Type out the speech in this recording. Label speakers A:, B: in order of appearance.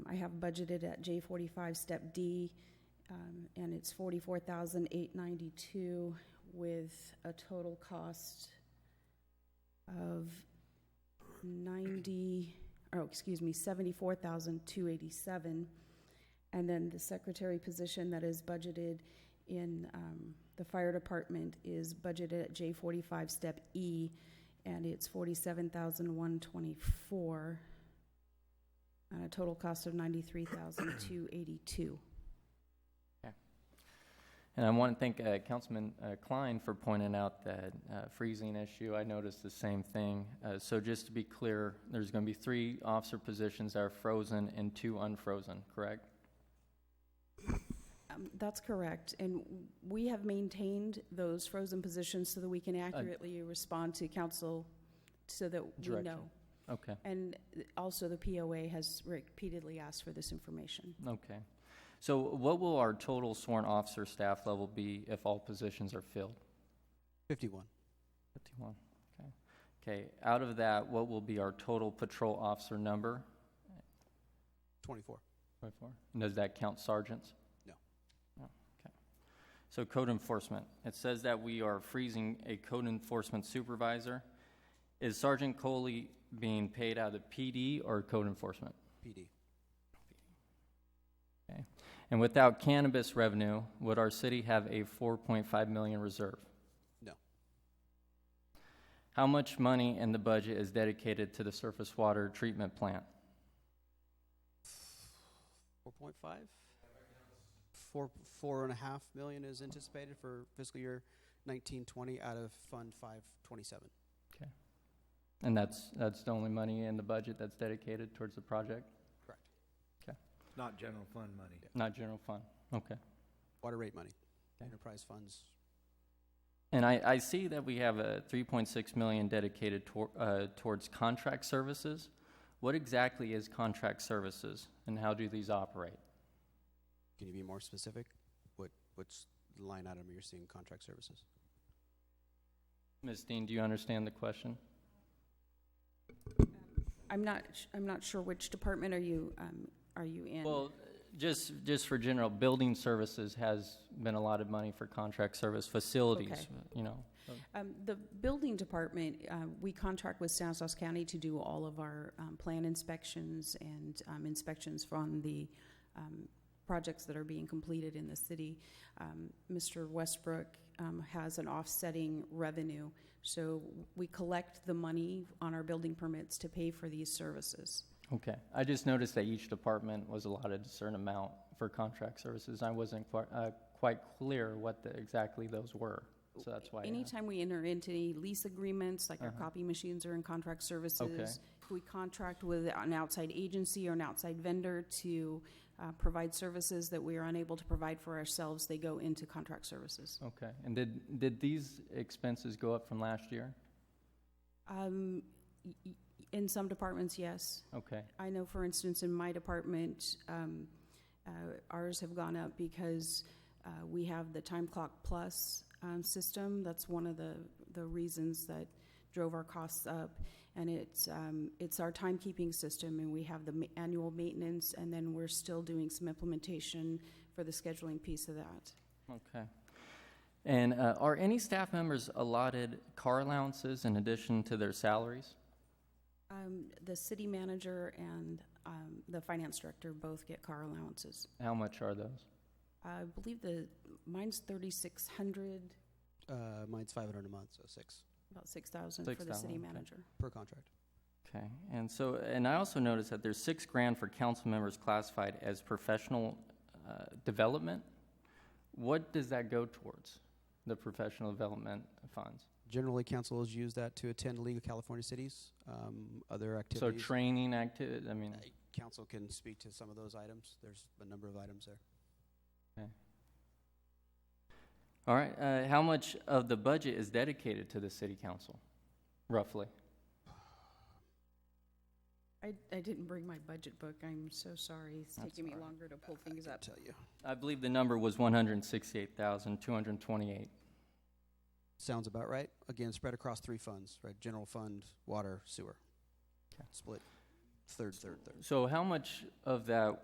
A: I have budgeted at J forty-five, step D, um, and it's forty-four thousand eight ninety-two with a total cost of ninety, oh, excuse me, seventy-four thousand two eighty-seven. And then the secretary position that is budgeted in, um, the fire department is budgeted at J forty-five, step E, and it's forty-seven thousand one twenty-four on a total cost of ninety-three thousand two eighty-two.
B: And I want to thank uh, Councilman uh, Klein for pointing out that uh, freezing issue. I noticed the same thing. Uh, So just to be clear, there's going to be three officer positions that are frozen and two unfrozen, correct?
A: Um, that's correct, and we have maintained those frozen positions so that we can accurately respond to council, so that we
B: Direction.
A: know.
B: Okay,
A: And also, the POA has repeatedly asked for this information.
B: okay. So what will our total sworn officer staff level be if all positions are filled?
C: 51.
B: 51, okay. Okay, out of that, what will be our total patrol officer number?
C: 24.
B: 24. And does that count sergeants?
C: No.
B: No, okay. So code enforcement, it says that we are freezing a code enforcement supervisor. Is Sergeant Coley being paid out of PD or code enforcement?
C: PD.
B: And without cannabis revenue, would our city have a 4.5 million reserve?
C: No.
B: How much money in the budget is dedicated to the surface water treatment plant?
C: 4.5? Four, four and a half million is anticipated for fiscal year 1920 out of Fund 527.
B: And that's, that's the only money in the budget that's dedicated towards the project,
D: Not general fund money.
B: not general fund? Okay.
C: Water rate money,
B: Okay.
C: enterprise funds.
B: And I, I see that we have a 3.6 million dedicated tor- uh, towards contract services. What exactly is contract services and how do these operate?
C: Can you be more specific? What, what's the line item you're seeing contract services?
B: Ms. Dean, do you understand the question?
A: I'm not, sh- I'm not sure which department are you, um, are you in?
B: Well, just, just for general, building services has been allotted money for contract service facilities,
A: Okay.
B: you know.
A: Um, The building department, uh, we contract with Stanislaus County to do all of our um, plan inspections and um, inspections from the um, projects that are being completed in the city. Um, Mr. Westbrook um, has an offsetting revenue, so we collect the money on our building permits to pay for these services.
B: Okay, I just noticed that each department was allotted a certain amount for contract services. I wasn't quite, uh, quite clear what the, exactly those were, so that's why. I asked.
A: Anytime we enter into any lease agreements, like our
B: Uh-huh.
A: copy machines are in contract services, we contract with an outside agency or an outside vendor to uh, provide services that we are unable to provide for ourselves, they go into contract services.
B: Okay, and did, did these expenses go up from last year?
A: Um, y- y- In some departments, yes.
B: Okay,
A: I know, for instance, in my department, um, uh, ours have gone up because uh, we have the time clock plus um, system. That's one of the, the reasons that drove our costs up. And it's, um, it's our timekeeping system, and we have the ma- annual maintenance, and then we're still doing some implementation for the scheduling piece of that.
B: okay. And uh, are any staff members allotted car allowances in addition to their salaries?
A: Um, The city manager and um, the finance director both get car allowances.
B: How much are those?
A: I believe the, mine's 3,600.
C: Uh, mine's 500 a month, so six
A: About six thousand for the
B: 6,000,
A: city
B: okay.
A: manager.
C: per contract.
B: Okay, and so, and I also noticed that there's six grand for council members classified as professional uh, development. What does that go towards, the professional development funds?
C: Generally, council has used that to attend League of California Cities, um, other
B: So
C: activities.
B: training activities, I mean,
C: Uh, Council can speak to some of those items. There's a number of items there.
B: all right, uh, how much of the budget is dedicated to the city council, roughly?
A: I, I didn't bring my budget book, I'm so sorry, it's
B: That's
A: taking me
B: all right.
A: longer to pull things
C: I
A: up.
C: tell you.
B: I believe the number was one hundred and sixty-eight thousand, two hundred and twenty-eight.
C: Sounds about right. Again, spread across three funds, right? General fund, water, sewer.
B: Okay.
C: Split, third, third, third.
B: So how much of that